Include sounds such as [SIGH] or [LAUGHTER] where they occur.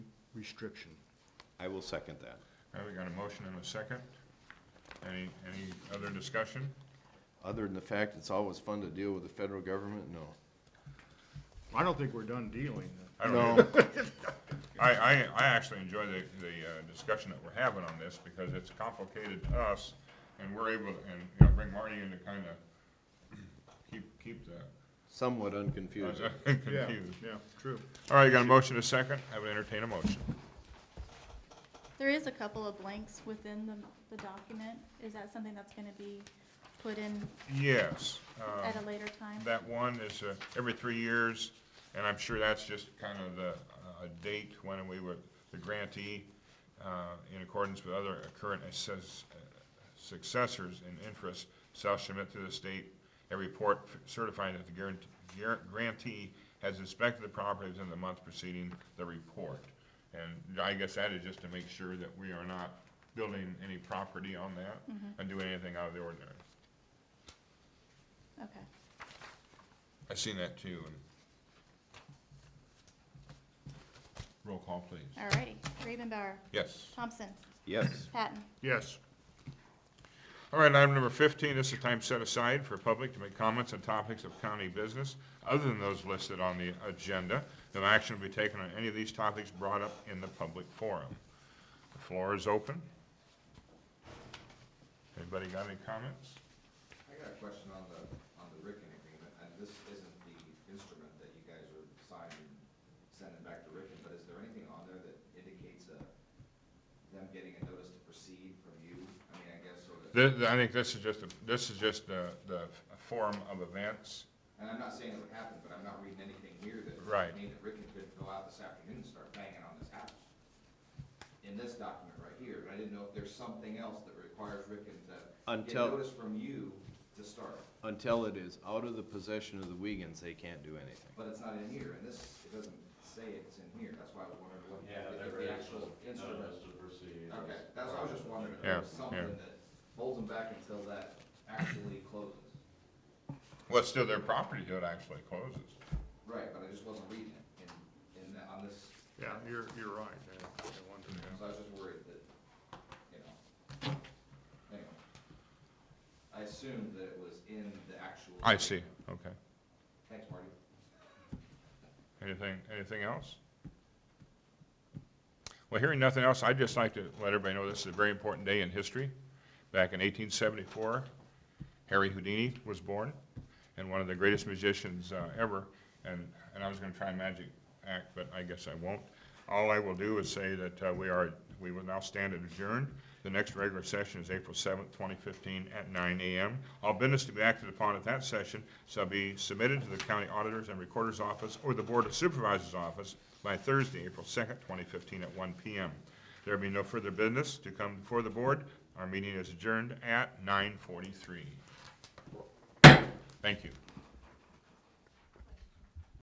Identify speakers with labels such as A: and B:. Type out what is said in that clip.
A: restriction.
B: I will second that.
C: All right, we got a motion and a second. Any, any other discussion?
B: Other than the fact it's always fun to deal with the federal government, no.
A: I don't think we're done dealing.
C: I don't
B: No.
C: either. I, I, I actually enjoy the, the uh, discussion that we're having on this because it's complicated to us and we're able, and, you know, bring Marty in to kind of keep, keep the,
B: Somewhat unconfusing.
C: [LAUGHS] confused.
A: Yeah, true.
C: All right, you got a motion and a second. I would entertain a motion.
D: There is a couple of blanks within the, the document. Is that something that's gonna be put in
C: Yes. um,
D: at a later time?
C: That one is uh, every three years, and I'm sure that's just kind of the uh, date when we were, the grantee, uh, in accordance with other current assess- uh, successors in interest, shall submit to the state a report certifying that the guarant- guar- grantee has inspected the property within the month preceding the report. And I guess that is just to make sure that we are not building any property on that and doing anything out of the ordinary.
D: Okay.
C: I seen that too, and. Roll call, please.
D: Alrighty. Ravenbauer,
C: Yes.
D: Thompson,
B: Yes,
D: Patton.
C: Yes. All right, item number fifteen, this is time set aside for public to make comments on topics of county business other than those listed on the agenda. No action will be taken on any of these topics brought up in the public forum. The floor is open. Anybody got any comments?
E: I got a question on the, on the Ricken agreement, and this isn't the instrument that you guys are signing, sending back to Ricken, but is there anything on there that indicates, uh, them getting a notice to proceed from you? I mean, I guess, sort of,
C: Th- I think this is just, a- this is just the, the forum of events.
E: and I'm not saying it would happen, but I'm not reading anything here that.
C: Right.
E: I mean, that Ricken could go out this afternoon and start banging on this house. In this document right here, but I didn't know if there's something else that requires Ricken to get
B: Until-
E: notice from you to start,
B: until it is out of the possession of the Wiegans, they can't do anything.
E: but it's not in here, and this, it doesn't say it's in here, that's why I was wondering what. if the actual instrument- Okay, that's what I was just wondering, if
C: Yeah,
E: there was something
C: yeah.
E: that holds them back until that actually closes.
C: Well, it's still their property till it actually closes.
E: Right, but I just wasn't reading it in, in, the- on this,
A: Yeah, you're, you're right. I- I wonder.
E: so I was just worried that, you know. Anyway. I assumed that it was in the actual.
C: I see, okay.
E: Thanks, Marty.
C: Anything, anything else? Well, hearing nothing else, I'd just like to let everybody know this is a very important day in history. Back in 1874, Harry Houdini was born, and one of the greatest magicians uh, ever. And, and I was gonna try a magic act, but I guess I won't. All I will do is say that uh, we are, we will now stand adjourned. The next regular session is April 7th, 2015, at 9 a.m. All business to be acted upon at that session shall be submitted to the county auditor's and recorder's office or the Board of Supervisors' office by Thursday, April 2nd, 2015, at 1 p.m. There will be no further business to come before the board. Our meeting is adjourned at 9:43. Thank you.